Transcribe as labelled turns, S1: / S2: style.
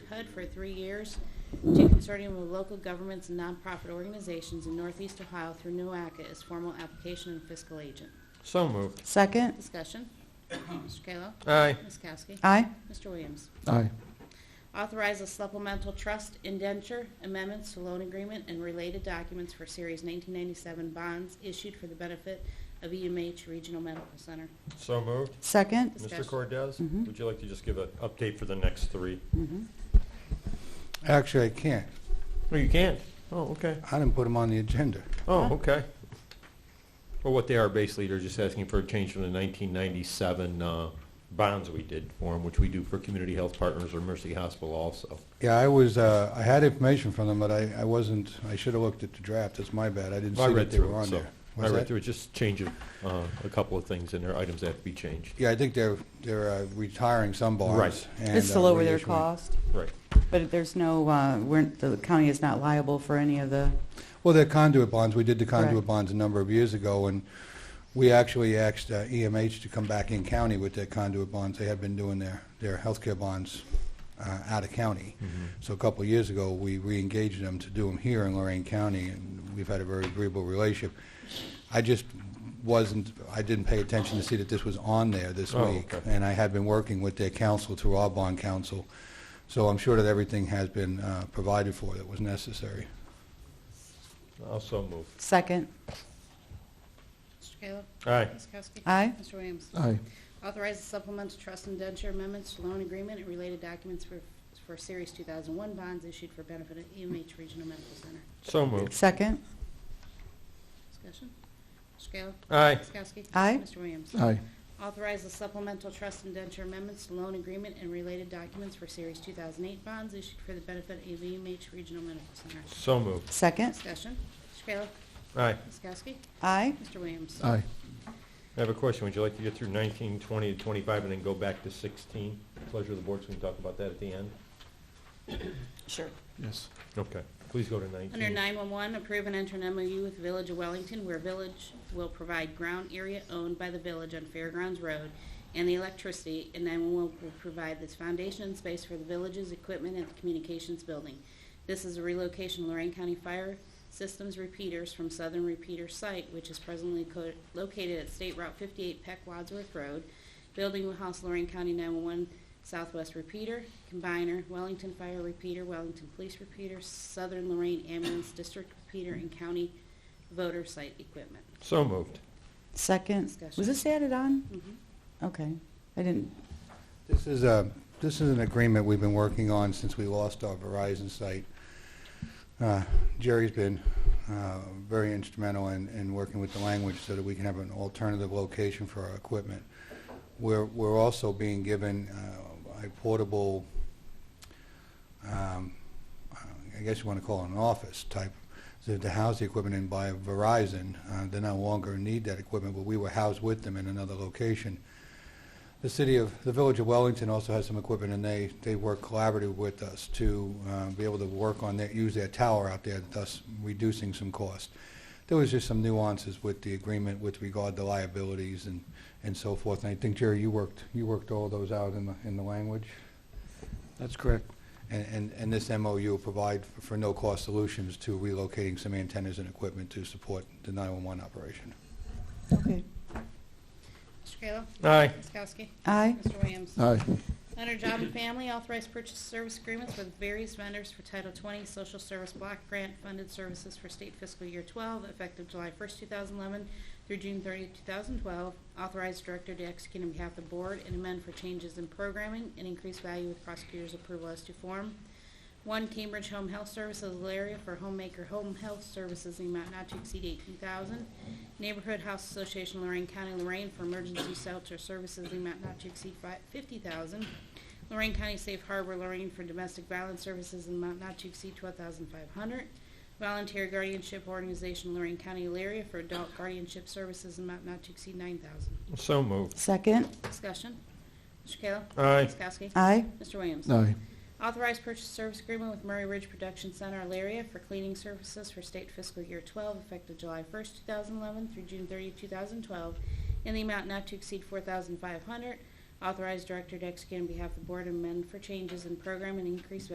S1: HUD for three years to consortium of local governments and nonprofit organizations in Northeast Ohio through NUACA as formal application and fiscal agent.
S2: So moved.
S3: Second.
S1: Discussion. Mr. Kayla.
S2: Aye.
S1: Ms. Kowski.
S3: Aye.
S1: Mr. Williams.
S4: aye,
S1: Authorize a supplemental trust indenture amendments to loan agreement and related documents for Series 1997 bonds issued for the benefit of EMH Regional Medical Center.
S2: So moved.
S3: Second.
S2: Mr.
S1: Discussion.
S2: Cordez,
S4: Mm-hmm.
S3: Mhm.
S2: would you like to just give an update for the next three?
S3: Mhm.
S4: actually, I can't,
S2: Oh, you can. Oh, okay.
S4: I didn't put them on the agenda.
S2: Oh, okay. Well, what they are basically, they're just asking for a change from the 1997 uh, bonds we did for them, which we do for Community Health Partners or Mercy Hospital also.
S4: Yeah, I was, uh, I had information from them, but I, I wasn't, I should have looked at the draft, that's my bad, I didn't
S2: I
S4: see
S2: read
S4: that they
S2: through
S4: were
S2: it,
S4: on
S2: so-
S4: there.
S2: I
S4: Was
S2: read
S4: that-
S2: through it, just change of, uh, a couple of things in there, items that have to be changed.
S4: Yeah, I think they're, they're uh, retiring some bonds.
S2: Right.
S4: and,
S3: It's
S4: uh,
S3: to lower their
S4: reissuing.
S3: cost,
S2: Right.
S3: but there's no, uh, we're, the county is not liable for any of the,
S4: Well, they're conduit bonds, we did the conduit
S3: Correct.
S4: bonds a number of years ago, and we actually asked uh, EMH to come back in county with their conduit bonds, they had been doing their, their healthcare bonds uh, out of county.
S2: Mm-hmm.
S4: So a couple of years ago, we re-engaged them to do them here in Lorraine County, and we've had a very agreeable relationship. I just wasn't, I didn't pay attention to see that this was on there this
S2: Oh,
S4: week.
S2: okay.
S4: And I had been working with their council through our bond council, so I'm sure that everything has been uh, provided for that was necessary.
S2: Also moved.
S3: second.
S1: Mr. Kayla.
S2: Aye.
S1: Ms. Kowski.
S3: Aye.
S1: Mr. Williams.
S4: Aye.
S1: Authorize a supplemental trust indenture amendments to loan agreement and related documents for, for Series 2001 bonds issued for benefit of EMH Regional Medical Center.
S2: So moved.
S3: Second.
S1: Discussion. Mr. Kayla.
S2: Aye.
S1: Ms. Kowski.
S3: Aye.
S1: Mr. Williams.
S4: Aye.
S1: Authorize the supplemental trust indenture amendments to loan agreement and related documents for Series 2008 bonds issued for the benefit of EMH Regional Medical Center.
S2: So moved.
S3: Second.
S1: Discussion. Mr. Kayla.
S2: Aye.
S1: Ms. Kowski.
S3: Aye.
S1: Mr. Williams.
S4: Aye.
S2: I have a question. Would you like to get through 19, 20, to 25, and then go back to 16? Pleasure of the board, so we can talk about that at the end.
S3: Sure.
S4: Yes.
S2: Okay. Please go to 19.
S1: Under 911, approve and enter an MOU with Village of Wellington where Village will provide ground area owned by the village on Fairgrounds Road and the electricity, and 911 will provide this foundation and space for the village's equipment at the communications building. This is a relocation of Lorraine County Fire Systems repeaters from Southern Repeater Site, which is presently co- located at State Route 58 Peck Wadsworth Road. Building will house Lorraine County 911 Southwest Repeater, Combiner, Wellington Fire Repeater, Wellington Police Repeater, Southern Lorraine Ambulance District Repeater, and County Voter Site Equipment.
S2: So moved.
S3: Second. Was this added on?
S1: Mhm.
S3: Okay. I didn't,
S4: This is a, this is an agreement we've been working on since we lost our Verizon site. Uh, Jerry's been uh, very instrumental in, in working with the language so that we can have an alternative location for our equipment. We're, we're also being given uh, a portable, um, I guess you want to call it an office type, to to house the equipment in by Verizon. Uh, They no longer need that equipment, but we were housed with them in another location. The city of, the village of Wellington also has some equipment, and they, they work collaboratively with us to uh, be able to work on that, use their tower out there, thus reducing some cost. There was just some nuances with the agreement with regard to liabilities and, and so forth, and I think, Jerry, you worked, you worked all those out in the, in the language?
S5: That's correct.
S4: And, and, and this MOU will provide for- for no-cost solutions to relocating some antennas and equipment to support the 911 operation.
S3: okay.
S1: Mr. Kayla?
S2: Aye.
S1: Ms. Kowski?
S3: Aye.
S1: Mr. Williams?
S5: Aye,
S1: Under Job and Family, authorized purchase service agreements with various vendors for Title 20 Social Service Block Grant Funded Services for State Fiscal Year 12, effective July 1st, 2011 through June 30, 2012. Authorized director to execute on behalf of the board and amend for changes in programming and increased value with prosecutor's approval as to form. One Cambridge Home Health Services, Alaria for Homemaker Home Health Services in the amount not to exceed eighteen thousand. Neighborhood House Association Lorraine County, Lorraine for Emergency Shelter Services in the amount not to exceed fifty thousand. Lorraine County Safe Harbor, Lorraine for Domestic Violence Services in the amount not to exceed twelve thousand five hundred. Volunteer Guardianship Organization, Lorraine County, Alaria for Adult Guardianship Services in the amount not to exceed nine thousand.
S2: So moved.
S3: Second.
S1: Discussion. Mr. Kayla.
S2: Aye.
S1: Ms. Kowski.
S3: Aye.
S1: Mr. Williams.
S5: aye,
S1: Authorized purchase service agreement with Murray Ridge Production Center, Alaria for cleaning services for state fiscal year 12, effective July 1st, 2011 through June 30, 2012, in the amount not to exceed 4500 Authorized director to execute on behalf of the board and amend for changes in program and increase